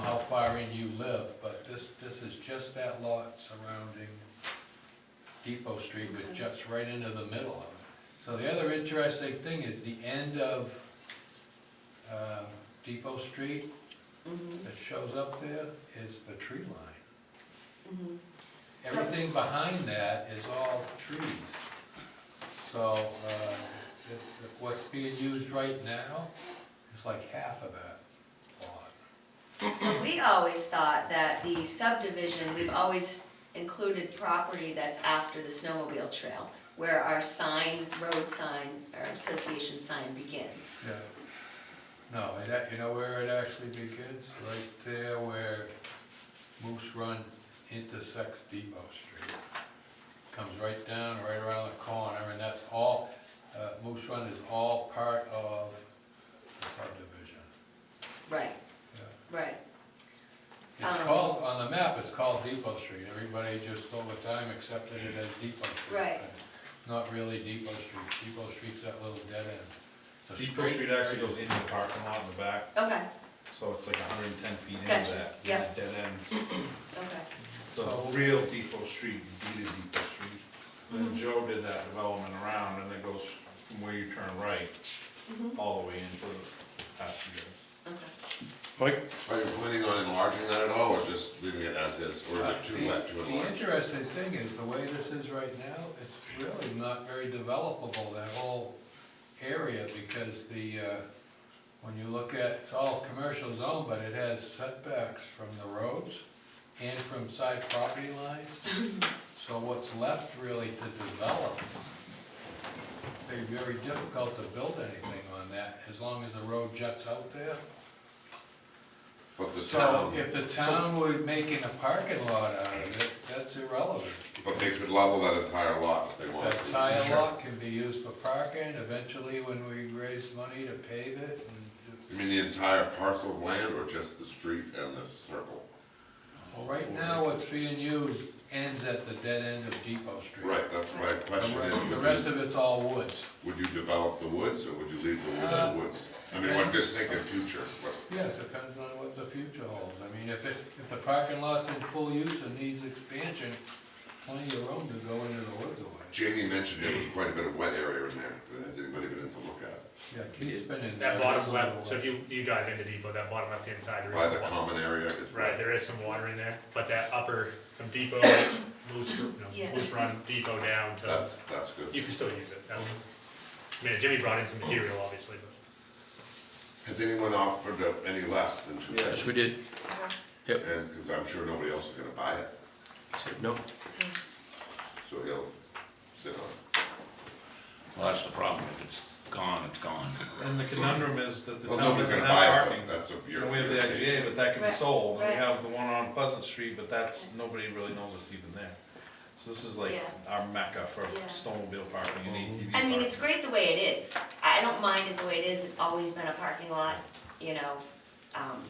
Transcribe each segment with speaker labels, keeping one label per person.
Speaker 1: where you live, but this, this is just that lot surrounding Depot Street, which juts right into the middle of it. So the other interesting thing is the end of um, Depot Street
Speaker 2: Mhm,
Speaker 1: that shows up there is the tree line.
Speaker 2: mhm. So-
Speaker 1: Everything behind that is all trees. So uh, it- what's being used right now is like half of that lot.
Speaker 2: So we always thought that the subdivision, we've always included property that's after the snowmobile trail, where our sign, road sign, our association sign begins.
Speaker 1: Yeah. No, it, act- you know where it actually begins? Right there where Moose Run intersects Depot Street. Comes right down, right around the corner, and that's all, uh, Moose Run is all part of the subdivision.
Speaker 2: Right,
Speaker 1: Yeah.
Speaker 2: right.
Speaker 1: It's
Speaker 2: Um.
Speaker 1: called, on the map, it's called Depot Street. Everybody just over time accepted it as Depot Street.
Speaker 2: Right.
Speaker 1: but Not really Depot Street. Depot Street's that little dead end. It's a
Speaker 3: Depot Street actually goes into the parking lot in the back,
Speaker 2: Okay,
Speaker 3: so it's like hundred and ten feet into
Speaker 2: Gotcha,
Speaker 3: that, and
Speaker 2: yeah.
Speaker 3: it dead ends.
Speaker 2: okay.
Speaker 1: So-
Speaker 3: The real Depot Street, indeed is Depot Street.
Speaker 2: Mm-hmm.
Speaker 3: Then Joe did that development around, and it goes from where you turn right,
Speaker 2: Mhm.
Speaker 3: all the way into the passenger.
Speaker 2: Okay.
Speaker 4: Mike?
Speaker 5: Are you planning on enlarging that at all, or just leaving it as is, or is it too
Speaker 1: The-
Speaker 5: wet to
Speaker 1: The
Speaker 5: enlarge?
Speaker 1: interesting thing is, the way this is right now, it's really not very developable, that whole area, because the, uh, when you look at, it's all commercial zone, but it has setbacks from the roads and from side property lines. So what's left really to develop, it'd be very difficult to build anything on that, as long as the road juts out there.
Speaker 5: But the
Speaker 1: So
Speaker 5: town,
Speaker 1: if the town were making a parking lot out of it, that's irrelevant.
Speaker 5: but they could level that entire lot if they wanted
Speaker 1: That
Speaker 5: to.
Speaker 1: tire lot can be used for parking, eventually when we raise money to pave it and,
Speaker 5: You mean the entire parcel of land, or just the street and the circle? Oh,
Speaker 1: well, right now what's being used ends at the dead end of Depot Street.
Speaker 5: Right, that's my question,
Speaker 1: The re- The
Speaker 5: is,
Speaker 1: rest
Speaker 5: would
Speaker 1: of it's all woods.
Speaker 5: you, would you develop the woods, or would you leave the woods
Speaker 1: Uh,
Speaker 5: the woods? I mean, I'm just thinking future, what,
Speaker 1: Yeah, it depends on what the future holds. I mean, if it, if the parking lot's in full use and needs expansion, plenty of room to go into the woods away.
Speaker 5: Jamie mentioned there was quite a bit of wet area in there, but has anybody been in to look at?
Speaker 1: Yeah, Keith's been in there.
Speaker 6: That bottom
Speaker 1: There's a
Speaker 6: left,
Speaker 1: little
Speaker 6: so if
Speaker 1: way.
Speaker 6: you, you drive into Depot, that bottom left hand side, there is.
Speaker 5: By the
Speaker 6: some wa-
Speaker 5: common area, it's
Speaker 6: Right,
Speaker 5: wet.
Speaker 6: there is some water in there, but that upper, from Depot, Moose, no,
Speaker 2: Yeah.
Speaker 6: Moose Run, Depot down to,
Speaker 5: That's, that's good.
Speaker 6: you can still use it. That's, I mean, Jimmy brought in some material, obviously, but
Speaker 5: Has anyone offered up any less than two
Speaker 4: Yes,
Speaker 5: thousand?
Speaker 4: we did.
Speaker 5: And, because I'm sure nobody else is gonna buy it,
Speaker 4: He said no.
Speaker 5: so he'll sit on it.
Speaker 7: Well, that's the problem, if it's gone, it's gone.
Speaker 3: And the conundrum is that the
Speaker 5: Well,
Speaker 3: town
Speaker 5: nobody's
Speaker 3: doesn't
Speaker 5: gonna
Speaker 3: have
Speaker 5: buy
Speaker 3: parking.
Speaker 5: it, but that's a
Speaker 3: And we have the
Speaker 5: bureaucracy.
Speaker 3: IGA, but that can be
Speaker 2: Right,
Speaker 3: sold, and we
Speaker 2: right.
Speaker 3: have the one on Pleasant Street, but that's, nobody really knows it's even there. So this is like
Speaker 2: Yeah.
Speaker 3: our mecca for
Speaker 2: Yeah.
Speaker 3: snowmobile parking and
Speaker 5: Mm-hmm.
Speaker 3: ATV
Speaker 2: I
Speaker 3: parking.
Speaker 2: mean, it's great the way it is. I don't mind it the way it is, it's always been a parking lot, you know. um,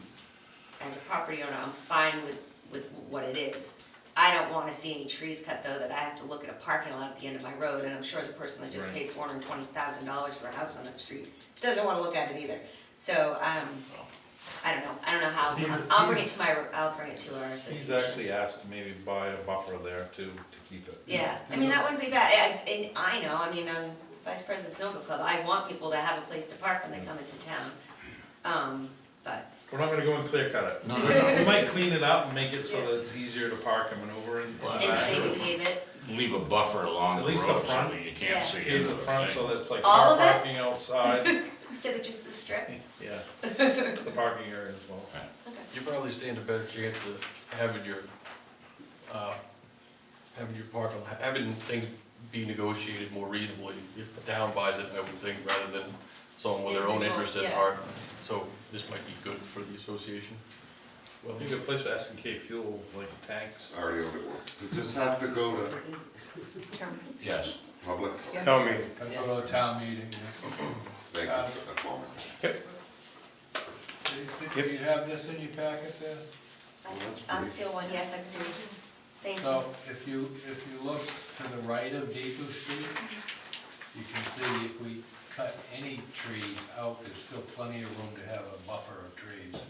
Speaker 2: As a property owner, I'm fine with, with what it is. I don't wanna see any trees cut though, that I have to look at a parking lot at the end of my road, and I'm sure the person that just
Speaker 3: Right.
Speaker 2: paid four hundred and twenty thousand dollars for a house on that street doesn't wanna look at it either. So, um, I don't know, I don't know
Speaker 3: He's-
Speaker 2: how, I'll bring it to my, I'll bring it to our
Speaker 3: He's
Speaker 2: association.
Speaker 3: actually asked to maybe buy a buffer there too, to keep it.
Speaker 2: Yeah, I mean, that wouldn't be bad, I- I- and I know, I mean, I'm vice president of Snowmobile Club, I want people to have a place to park when they come into town. Um, but,
Speaker 3: We're not gonna go and clear cut it.
Speaker 7: No, no, no.
Speaker 3: We might clean it up and make it so that it's easier to park and maneuver and.
Speaker 7: Well,
Speaker 2: and maybe pave it,
Speaker 7: Leave a buffer along
Speaker 3: At
Speaker 7: the road
Speaker 3: least the
Speaker 7: so
Speaker 3: front.
Speaker 7: that you
Speaker 2: Yeah.
Speaker 7: can't see
Speaker 3: Pave
Speaker 7: into
Speaker 3: the
Speaker 7: the
Speaker 3: front so
Speaker 7: thing.
Speaker 3: that it's like
Speaker 2: All
Speaker 3: car
Speaker 2: of it?
Speaker 3: parking outside,
Speaker 2: instead of just the strip,
Speaker 3: yeah, the parking area as well.
Speaker 8: You probably stand a better chance of having your, uh, having your park, having things be negotiated more reasonably. If the town buys it, I would think, rather than someone with their own
Speaker 2: Individual,
Speaker 8: interest at
Speaker 2: yeah.
Speaker 8: heart. So this might be good for the association.
Speaker 3: Well, it'd be a good place to ask in K fuel, like tanks.
Speaker 5: I already owned it once. Does this have to go to
Speaker 7: Yes.
Speaker 5: public?
Speaker 4: Tell me.
Speaker 1: Gotta go to a town meeting. yeah.
Speaker 5: Thank
Speaker 3: Uh,
Speaker 5: you for that moment.
Speaker 1: Do you- Do you have this in your packet there?
Speaker 2: I'll steal one, yes, I can do it, thank you.
Speaker 1: So if you, if you look to the right of Depot Street, you can see if we cut any trees out, there's still plenty of room to have a buffer of trees.